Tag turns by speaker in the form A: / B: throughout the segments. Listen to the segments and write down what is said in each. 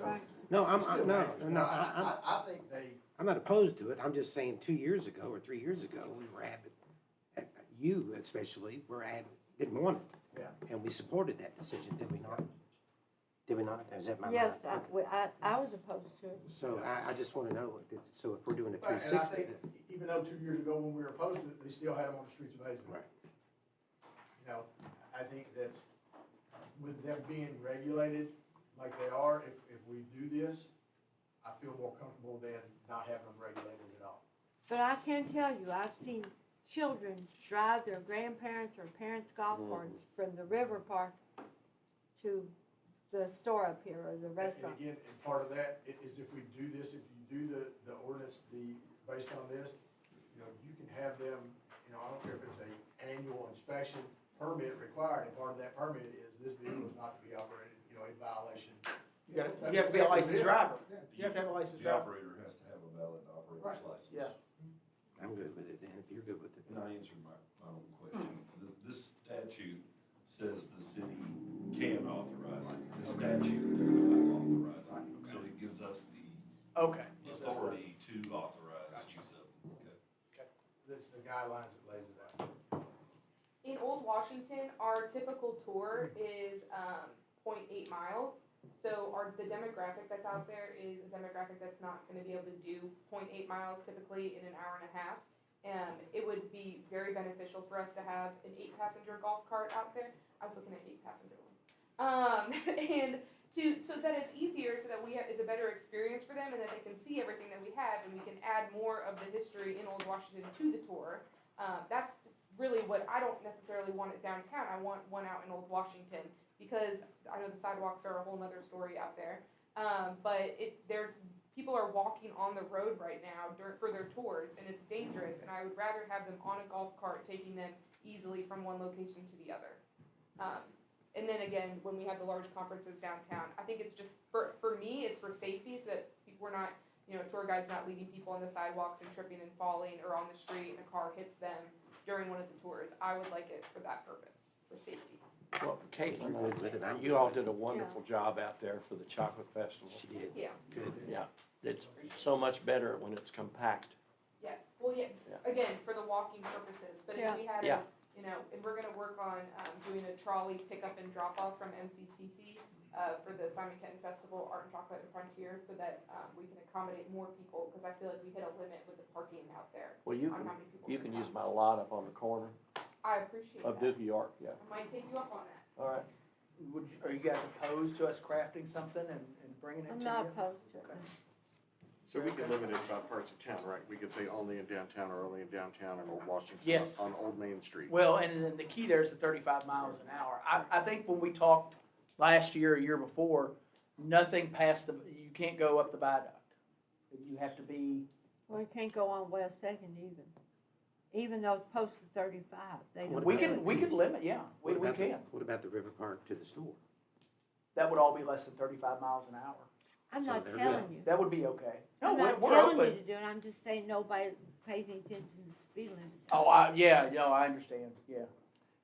A: Right.
B: No, I'm,
C: Still
B: I'm, no,
C: matters.
B: no, I, I'm,
C: I, I think they,
B: I'm not opposed to it, I'm just saying, two years ago or three years ago, we were adamant, uh, you especially, were adamant, didn't want it,
C: yeah,
B: and we supported that decision, did we not? Did we not? Is that my?
A: Yes,
B: mind?
A: I,
B: Okay.
A: we- I, I was opposed to it.
B: So I, I just wanna know, what this- so if we're doing a
C: Right,
B: three
C: and I
B: sixty,
C: think, even though two years ago when we were opposed to it, they still had them on the streets of Hazelton.
B: Right.
C: You know, I think that with them being regulated like they are, if, if we do this, I feel more comfortable than not having them regulated at all.
A: But I can tell you, I've seen children drive their grandparents or parents' golf
D: Mm-hmm.
B: Mhm.
A: carts from the river park to the store up here or the
C: And-
A: restaurant.
C: And again, and part of that i- is if we do this, if you do the, the ordinance, the, based on this, you know, you can have them, you know, I don't care if it's a annual inspection permit required, and part of that permit is this vehicle is not to be operated, you know, in violation.
E: You gotta, you have to be a licensed driver. You have to have a licensed
F: The
E: driver.
F: operator has to have a valid
C: Right,
F: operator's license.
E: yeah.
B: I'm good with it, then, if you're good with it.
F: And I answered my, my own question.
E: Hmm.
F: The- This statute says the city can authorize it. The statute does not authorize it. So it gives us the
E: Okay.
F: authority to authorize use of. it.
C: That's the guidelines that lays it out.
G: in Old Washington, our typical tour is um, 0.8 miles. So our the demographic that's out there is a demographic that's not going to be able to do 0.8 miles typically in an hour and a half. Um, it would be very beneficial for us to have an eight-passenger golf cart out there. I was looking at eight-passenger ones, um, and to so that it's easier, so that we have it's a better experience for them, and that they can see everything that we have, and we can add more of the history in Old Washington to the tour. Uh, that's really what I don't necessarily want it downtown. I want one out in Old Washington because I know the sidewalks are a whole nother story out there. Um, but it there people are walking on the road right now dur- for their tours and it's dangerous. And I would rather have them on a golf cart taking them easily from one location to the other. Um, and then again, when we have the large conferences downtown, I think it's just for for me, it's for safety so that people- we're not you know tour guides not leading people on the sidewalks and tripping and falling or on the street and a car hits them during one of the tours. I would like it for that purpose, for safety.
E: Well, Kate,
B: I'm good with it. I'm good
E: you all
B: with it.
E: did a wonderful job out there for the chocolate festival.
B: She did,
G: Yeah.
B: good.
E: It's so much better when it's compact.
G: Yes, well, yeah,
E: Yeah.
G: again, for the walking purposes, but if
A: Yeah.
G: we had,
E: Yeah.
G: a- you know, and we're gonna work on, um, doing a trolley pickup and drop off from MCTC, uh, for the Simon Kenton Festival, Art and Chocolate and Frontier, so that, um, we can accommodate more people, cause I feel like we hit a limit with the parking out there
E: Well, you
G: on
E: can,
G: how many people.
E: you
G: we
E: can
G: have.
E: use my lot up on the corner
G: I appreciate
E: of
G: that,
E: Dookie York, yeah.
G: I might take you up on that,
E: All right.
D: Would, you- are you guys opposed to us crafting something and, and bringing it to
A: I'm
D: you?
A: not opposed to it.
H: So we could limit it by parts of town, right? We could say only in downtown or only in downtown or Washington.
D: Yes.
H: On Old Main Street.
D: Well, and then the key there is the thirty-five miles an hour. I, I think when we talked last year, a year before, nothing past the, you can't go up the viaduct. You have to be,
A: Well, you can't go on West Second even, even though it's posted thirty-five, they don't.
B: What
D: we
A: do
B: about-
A: it.
D: can, we could limit, yeah, we,
B: What
D: we
B: about the-
D: can.
B: What about the River Park to the store?
D: That would all be less than thirty-five miles an hour.
A: I'm
B: So
A: not
B: they're
A: telling you.
D: That would be okay. No,
A: I'm
D: we're,
A: not
D: we're
A: telling you
D: open.
A: to do it, I'm just saying nobody pays any attention to speed limit.
D: Oh, I, yeah, no, I understand, yeah.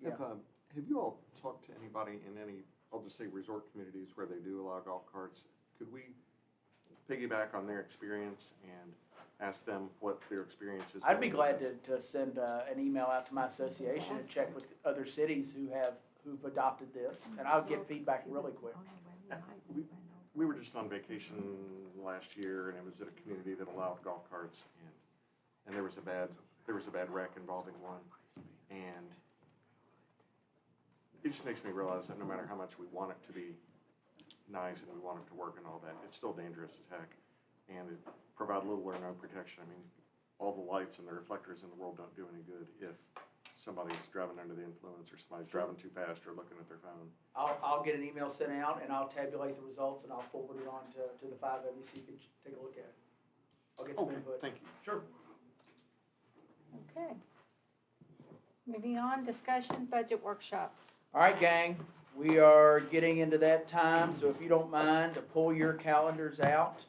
D: Yeah.
H: Have, um, have you all talked to anybody in any, I'll just say resort communities where they do allow golf carts? Could we piggyback on their experience and ask them what their experience is?
D: I'd be
H: doing
D: glad
H: this?
D: to, to send, uh, an email out to my association and check with other cities who have, who've adopted this, and I'll get feedback really quick.
H: We were just on vacation last year and it was at a community that allowed golf carts and, and there was a bad, there was a bad wreck involving one. And it just makes me realize that no matter how much we want it to be nice and we want it to work and all that, it's still dangerous as heck. And it provide little or no protection. I mean, all the lights and the reflectors in the world don't do any good if somebody's driving under the influence or somebody's driving too fast or looking at their phone.
D: I'll, I'll get an email sent out and I'll tabulate the results and I'll forward it on to, to the five of you so you can take a look at it. I'll get some
H: Okay,
D: input.
H: thank you.
D: Sure.
I: Okay. Moving on, discussion budget workshops.
D: All right, gang, we are getting into that time, so if you don't mind to pull your calendars out.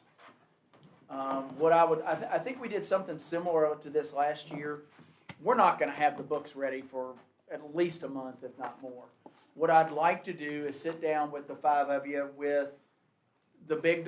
D: Um, what I would, I, th- I think we did something similar to this last year. We're not gonna have the books ready for at least a month, if not more. What I'd like to do is sit down with the five of you with the big